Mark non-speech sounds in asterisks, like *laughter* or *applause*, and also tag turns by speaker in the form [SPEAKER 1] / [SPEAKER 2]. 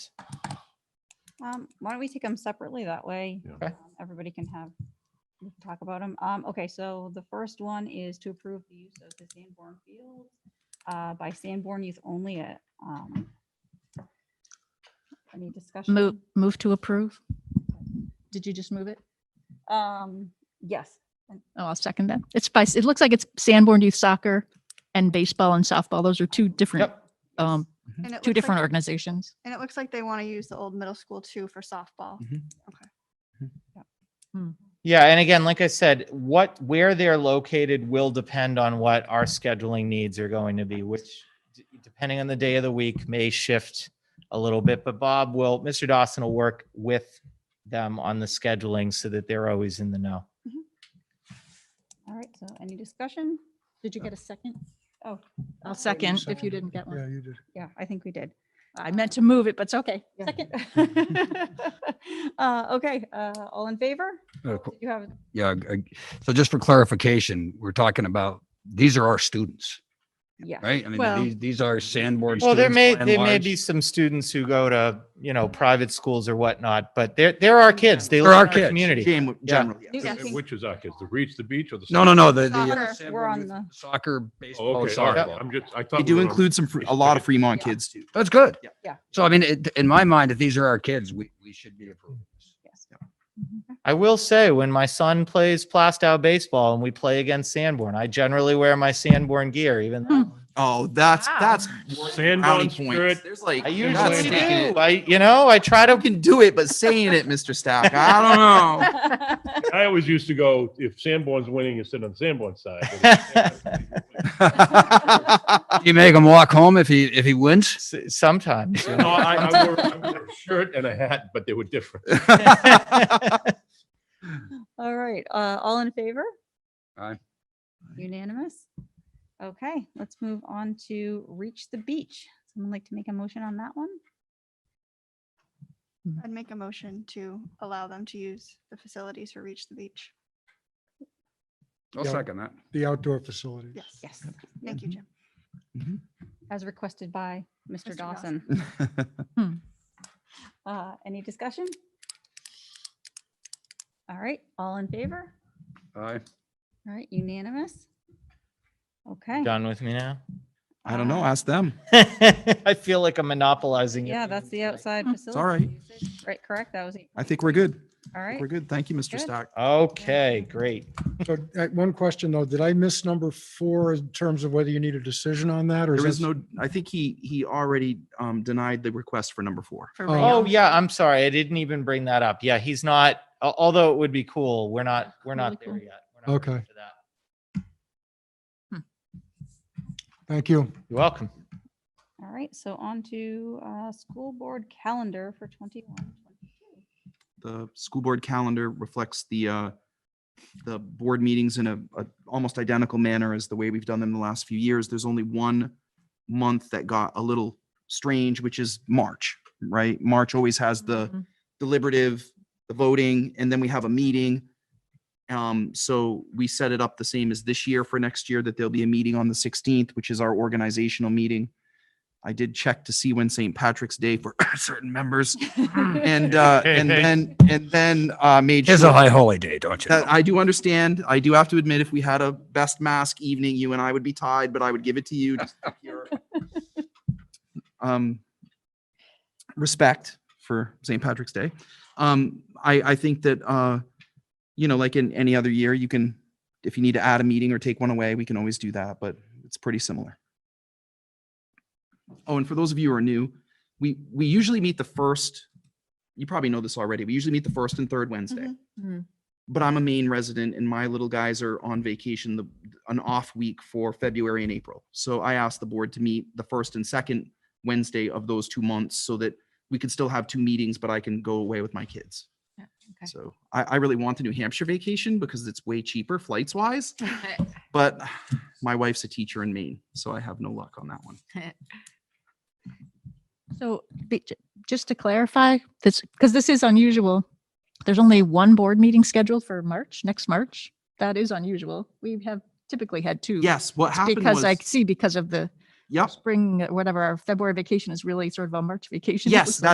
[SPEAKER 1] Um, why don't we take them separately? That way,
[SPEAKER 2] Yeah.
[SPEAKER 3] Okay.
[SPEAKER 1] um, everybody can have, we can talk about them. Um, okay, so the first one is to approve the use of the Sanborn Fields uh, by Sanborn Youth Only at, um, any discussion?
[SPEAKER 4] Move, move to approve. Did you just move it?
[SPEAKER 1] Um, yes,
[SPEAKER 4] Oh, I'll second that. It's by, it looks like it's Sanborn Youth Soccer and baseball and softball. Those are two different,
[SPEAKER 3] Yep.
[SPEAKER 4] um,
[SPEAKER 5] And it looks
[SPEAKER 4] two
[SPEAKER 5] like
[SPEAKER 4] different
[SPEAKER 5] they-
[SPEAKER 4] organizations.
[SPEAKER 5] And it looks like they want to use the old middle school too for softball.
[SPEAKER 3] Yeah, and again, like I said, what, where they're located will depend on what our scheduling needs are going to be, which d- depending on the day of the week may shift a little bit, but Bob will, Mr. Dawson will work with them on the scheduling so that they're always in the know.
[SPEAKER 1] all right, so any discussion?
[SPEAKER 4] Did you get a second?
[SPEAKER 1] Oh.
[SPEAKER 4] I'll second if you didn't get one.
[SPEAKER 2] Yeah, you did.
[SPEAKER 1] Yeah, I think we did.
[SPEAKER 4] I meant to move it, but it's okay.
[SPEAKER 1] Yeah.
[SPEAKER 4] Second.
[SPEAKER 1] *laughs* Uh, okay, uh, all in favor?
[SPEAKER 6] Uh, qu-
[SPEAKER 1] You have,
[SPEAKER 6] Yeah. g- g- So just for clarification, we're talking about, these are our students,
[SPEAKER 1] yeah.
[SPEAKER 6] right? I mean,
[SPEAKER 4] Well-
[SPEAKER 6] these, these are Sanborn students.
[SPEAKER 3] Well, there may,
[SPEAKER 6] by and
[SPEAKER 3] there may
[SPEAKER 6] large.
[SPEAKER 3] be some students who go to, you know, private schools or whatnot, but they're, they're our kids. They live
[SPEAKER 6] They're
[SPEAKER 3] in
[SPEAKER 6] our
[SPEAKER 3] our
[SPEAKER 6] kids.
[SPEAKER 3] community.
[SPEAKER 6] gen-
[SPEAKER 3] Yeah.
[SPEAKER 6] Generally. yes.
[SPEAKER 1] Do I think-
[SPEAKER 2] Which is our kids, the Reach the Beach or the?
[SPEAKER 6] No, no, no, the, the. uh,
[SPEAKER 5] Soccer. We're
[SPEAKER 6] Sanborn
[SPEAKER 1] on
[SPEAKER 6] youth
[SPEAKER 1] the-
[SPEAKER 6] Soccer,
[SPEAKER 2] Oh,
[SPEAKER 6] baseball,
[SPEAKER 2] Okay, all right.
[SPEAKER 6] softball.
[SPEAKER 2] I'm just, I thought.
[SPEAKER 7] They
[SPEAKER 2] we
[SPEAKER 7] do
[SPEAKER 2] were on-
[SPEAKER 7] include some, Fre- a lot of Fremont
[SPEAKER 1] Yeah.
[SPEAKER 7] kids too.
[SPEAKER 6] That's good.
[SPEAKER 7] Yeah.
[SPEAKER 1] Yeah.
[SPEAKER 6] So I mean, it, in my mind, if these are our kids, we, we should be approving *laughs*
[SPEAKER 1] Yes.
[SPEAKER 6] this.
[SPEAKER 3] I will say, when my son plays Plastow baseball and we play against Sanborn, I generally wear my Sanborn gear, even though.
[SPEAKER 7] Oh, that's,
[SPEAKER 4] Wow.
[SPEAKER 7] that's. brownie
[SPEAKER 2] Sanborn
[SPEAKER 7] points.
[SPEAKER 2] skirt.
[SPEAKER 7] There's like,
[SPEAKER 3] I
[SPEAKER 7] you're
[SPEAKER 3] usually
[SPEAKER 7] not
[SPEAKER 3] do.
[SPEAKER 7] sticking it.
[SPEAKER 3] I, you know, I try *laughs*
[SPEAKER 7] You
[SPEAKER 3] to.
[SPEAKER 7] can do it, but saying it, Mr. Stack, I don't know.
[SPEAKER 1] *laughs*
[SPEAKER 2] I always used to go, if Sanborn's winning, you sit on Sanborn's side. but if Sanborn's-
[SPEAKER 6] You make him walk home if he, if he wins? *laughs*
[SPEAKER 3] S- Sometimes.
[SPEAKER 2] No,
[SPEAKER 3] you
[SPEAKER 1] *laughs*
[SPEAKER 3] know.
[SPEAKER 2] I, I wore, I wore a shirt and a hat, but they were different.
[SPEAKER 1] All right, uh, all in favor?
[SPEAKER 6] Aye.
[SPEAKER 1] Unanimous? Okay, let's move on to Reach the Beach. Someone like to make a motion on that one?
[SPEAKER 4] Mm-hmm.
[SPEAKER 5] I'd make a motion to allow them to use the facilities for Reach the Beach.
[SPEAKER 6] I'll
[SPEAKER 2] Yeah.
[SPEAKER 6] second that.
[SPEAKER 2] The outdoor facilities.
[SPEAKER 5] Yes.
[SPEAKER 1] Yes,
[SPEAKER 5] Thank you, Jim.
[SPEAKER 1] as requested by Mr.
[SPEAKER 5] Mr.
[SPEAKER 1] Dawson.
[SPEAKER 5] Dawson.
[SPEAKER 2] *laughs*
[SPEAKER 1] Uh, any discussion? All right, all in favor?
[SPEAKER 6] Aye.
[SPEAKER 1] All right, unanimous? Okay.
[SPEAKER 3] Done with me now?
[SPEAKER 7] I don't know.
[SPEAKER 1] uh,
[SPEAKER 7] Ask them.
[SPEAKER 3] I feel like I'm monopolizing.
[SPEAKER 1] Yeah, that's the
[SPEAKER 3] everything
[SPEAKER 1] outside
[SPEAKER 4] Mm.
[SPEAKER 1] facility.
[SPEAKER 4] It's
[SPEAKER 7] all
[SPEAKER 1] usage, Right, correct, that was, it.
[SPEAKER 7] I think we're good.
[SPEAKER 1] all
[SPEAKER 7] I think
[SPEAKER 1] right.
[SPEAKER 7] We're good. Thank you, Mr.
[SPEAKER 1] Good.
[SPEAKER 7] Stack.
[SPEAKER 3] tonight. Okay, great.
[SPEAKER 8] So uh, one question though, did I miss number four in terms of whether you need a decision on that or?
[SPEAKER 7] There
[SPEAKER 8] that-
[SPEAKER 7] is no, I think he, he already um, denied the request for number four.
[SPEAKER 4] for
[SPEAKER 8] Oh.
[SPEAKER 4] Rayon.
[SPEAKER 3] Oh, yeah, I'm sorry. I didn't even bring that up. Yeah, he's not, al- although it would be cool, we're not, we're not
[SPEAKER 4] Really
[SPEAKER 3] there
[SPEAKER 4] cool.
[SPEAKER 3] yet. We're not ready
[SPEAKER 8] Okay.
[SPEAKER 3] for that.
[SPEAKER 8] Thank you.
[SPEAKER 3] You're welcome.
[SPEAKER 1] All right, so on to uh, school board calendar for 21, 22.
[SPEAKER 7] The school board calendar reflects the, uh, the board meetings in a, a almost identical manner as the way we've done them the last few years. There's only one month that got a little strange, which is March, right? March always has the
[SPEAKER 4] Mhm.
[SPEAKER 7] deliberative, the voting, and then we have a meeting. Um, so we set it up the same as this year for next year, that there'll be a meeting on the sixteenth, which is our organizational meeting. I did check to see when St. Patrick's Day for *coughs* certain members and, uh, and then, and then, uh, made
[SPEAKER 6] It's a
[SPEAKER 7] sure
[SPEAKER 6] high holy day, don't you? know?
[SPEAKER 7] that I do understand. I do have to admit, if we had a best mask evening, you and I would be tied, but I would give it to you. just for pure, um, respect for St. Patrick's Day. Um, I, I think that, uh, you know, like in any other year, you can, if you need to add a meeting or take one away, we can always do that, but it's pretty similar. Oh, and for those of you who are new, we, we usually meet the first, you probably know this already. We usually meet the first and third Wednesday
[SPEAKER 5] Mhm.
[SPEAKER 4] Mhm.
[SPEAKER 7] but I'm a Maine resident and my little guys are on vacation, the, an off week for February and April. So I asked the board to meet the first and second Wednesday of those two months so that we could still have two meetings, but I can go away with my kids.
[SPEAKER 4] Yeah, okay.
[SPEAKER 7] So I, I really want the New Hampshire vacation because it's way cheaper
[SPEAKER 4] *laughs*
[SPEAKER 7] flights wise, but my wife's a teacher in Maine, so I have no luck on that one.
[SPEAKER 4] So be- j- just to clarify, this, because this is unusual, there's only one board meeting scheduled for March, next March. That is unusual. We have typically had two.
[SPEAKER 7] Yes, what
[SPEAKER 4] It's
[SPEAKER 7] happened
[SPEAKER 4] Because I
[SPEAKER 7] was,
[SPEAKER 4] see because of the
[SPEAKER 7] yep,
[SPEAKER 4] spring, uh, whatever, our February *laughs* vacation *laughs* is really sort of a March vacation. It
[SPEAKER 7] Yes,
[SPEAKER 4] was like-
[SPEAKER 7] that's